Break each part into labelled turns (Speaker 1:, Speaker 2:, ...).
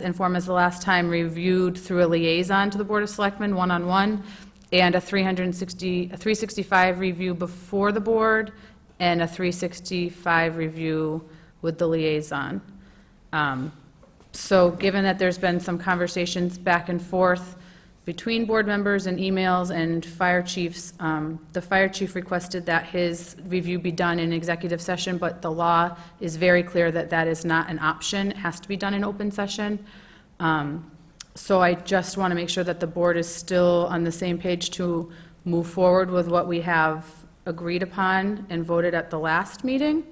Speaker 1: and form as the last time reviewed through a liaison to the Board of Selectmen, one-on-one, and a 360, a 365 review before the board, and a 365 review with the liaison. Um, So given that there's been some conversations back and forth between board members and emails and fire chiefs, um, the fire chief requested that his review be done in executive session, but the law is very clear that that is not an option, it has to be done in open session. Um, So I just want to make sure that the board is still on the same page to move forward with what we have agreed upon and voted at the last meeting.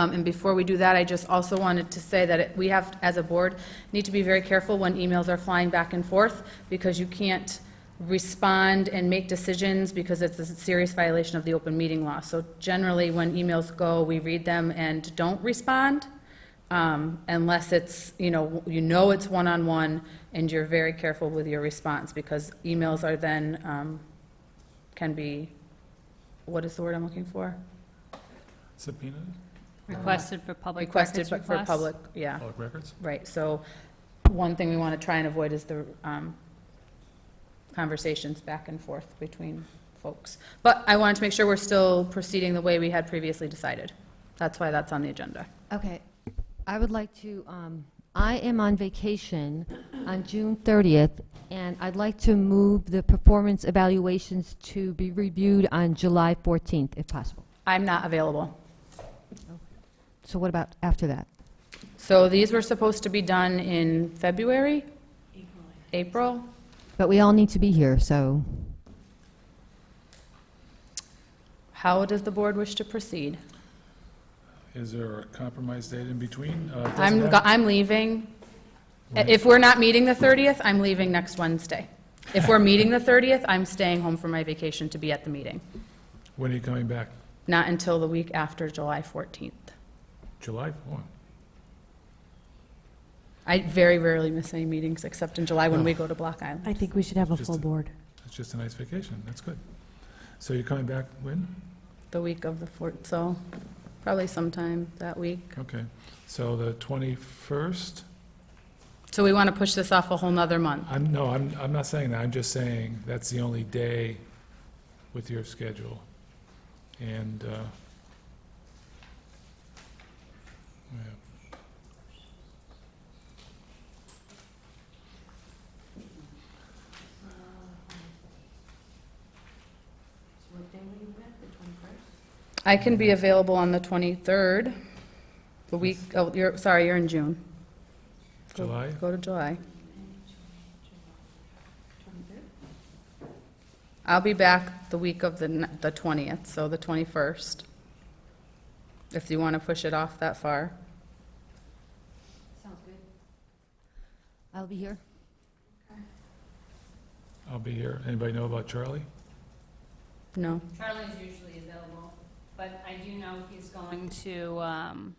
Speaker 1: Um, And before we do that, I just also wanted to say that it- we have, as a board, need to be very careful when emails are flying back and forth, because you can't respond and make decisions, because it's a serious violation of the open meeting law. So generally, when emails go, we read them and don't respond, um, unless it's, you know, you know it's one-on-one, and you're very careful with your response, because emails are then, um, can be, what is the word I'm looking for?
Speaker 2: Subpoena,
Speaker 3: Requested for public
Speaker 1: Uh, Requested
Speaker 3: records
Speaker 1: but for
Speaker 3: requests?
Speaker 1: public, yeah.
Speaker 2: Uh, public records?
Speaker 1: Right, so one thing we want to try and avoid is the um, conversations back and forth between folks. But I wanted to make sure we're still proceeding the way we had previously decided. That's why that's on the agenda.
Speaker 4: Okay, I would like to, um, I am on vacation on June 30th, and I'd like to move the performance evaluations to be reviewed on July 14th, if possible.
Speaker 1: I'm not available.
Speaker 4: So what about after that?
Speaker 1: So these were supposed to be done in February? April.
Speaker 4: But we all need to be here, so
Speaker 1: How does the board wish to proceed?
Speaker 2: Is there a compromise date in between? Uh, it doesn't
Speaker 1: I'm,
Speaker 2: have-
Speaker 1: go- I'm leaving.
Speaker 2: Right.
Speaker 1: If we're not meeting the 30th, I'm leaving next Wednesday. If we're meeting the 30th, I'm staying home for my vacation to be at the meeting.
Speaker 2: When are you coming back?
Speaker 1: Not until the week after July 14th.
Speaker 2: July 4?
Speaker 1: I very rarely miss any meetings except in July when we go to Block Island.
Speaker 5: I think we should have a
Speaker 2: Just
Speaker 5: full
Speaker 2: a-
Speaker 5: board.
Speaker 2: It's just a nice vacation, that's good. So you're coming back when?
Speaker 1: The week of the 4th, so probably sometime that week.
Speaker 2: Okay, so the 21st?
Speaker 1: So we want to push this off a whole nother month.
Speaker 2: I'm, no, I'm, I'm not saying that, I'm just saying that's the only day with your schedule. And, uh, yeah.
Speaker 1: I can be available on the 23rd, the week, oh, you're, sorry, you're in June. Go-
Speaker 2: July?
Speaker 1: Go to July. I'll be back the week of the n- the 20th, so the 21st, if you want to push it off that far.
Speaker 4: I'll be here.
Speaker 2: I'll be here. Anybody know about Charlie?
Speaker 1: No?
Speaker 3: Charlie's usually available, but I do know he's going to, um,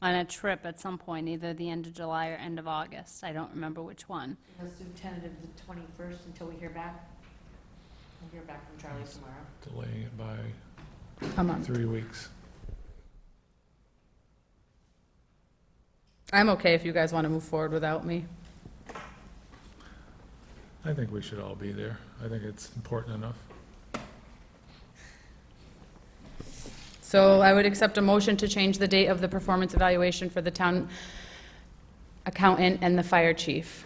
Speaker 3: on a trip at some point, either the end of July or end of August. I don't remember which one.
Speaker 6: Let's do tentative the twenty-first until we hear back. We'll hear back from Charlie tomorrow.
Speaker 2: Delaying it by
Speaker 1: A month.
Speaker 2: three weeks.
Speaker 1: I'm okay if you guys want to move forward without me.
Speaker 2: I think we should all be there. I think it's important enough.
Speaker 1: So I would accept a motion to change the date of the performance evaluation for the town accountant and the fire chief.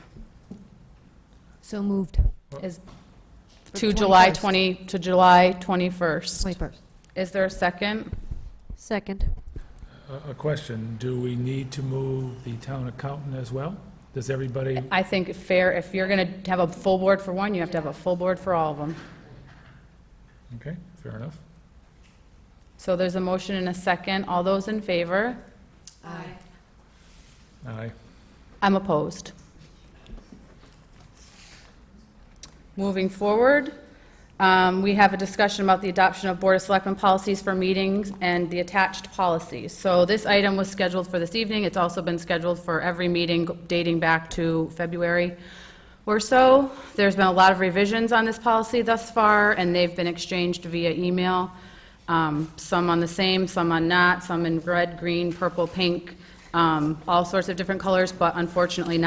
Speaker 4: So moved,
Speaker 1: Is,
Speaker 4: For
Speaker 1: to
Speaker 4: the
Speaker 1: July
Speaker 4: 21st.
Speaker 1: 20, to July 21st.
Speaker 4: 21st.
Speaker 1: Is there a second?
Speaker 5: Second.
Speaker 2: A, a question, do we need to move the town accountant as well? Does everybody,
Speaker 1: I think it's fair, if you're going to have a full board for one, you have to have a full board for all of them.
Speaker 2: okay, fair enough.
Speaker 1: So there's a motion and a second. All those in favor?
Speaker 6: Aye.
Speaker 2: Aye.
Speaker 1: I'm opposed. Moving forward, um, we have a discussion about the adoption of Board of Selectmen policies for meetings and the attached policies. So this item was scheduled for this evening. It's also been scheduled for every meeting dating back to February or so. There's been a lot of revisions on this policy thus far, and they've been exchanged via email, Um, some on the same, some on not, some in red, green, purple, pink, um, all sorts of different colors, but unfortunately not.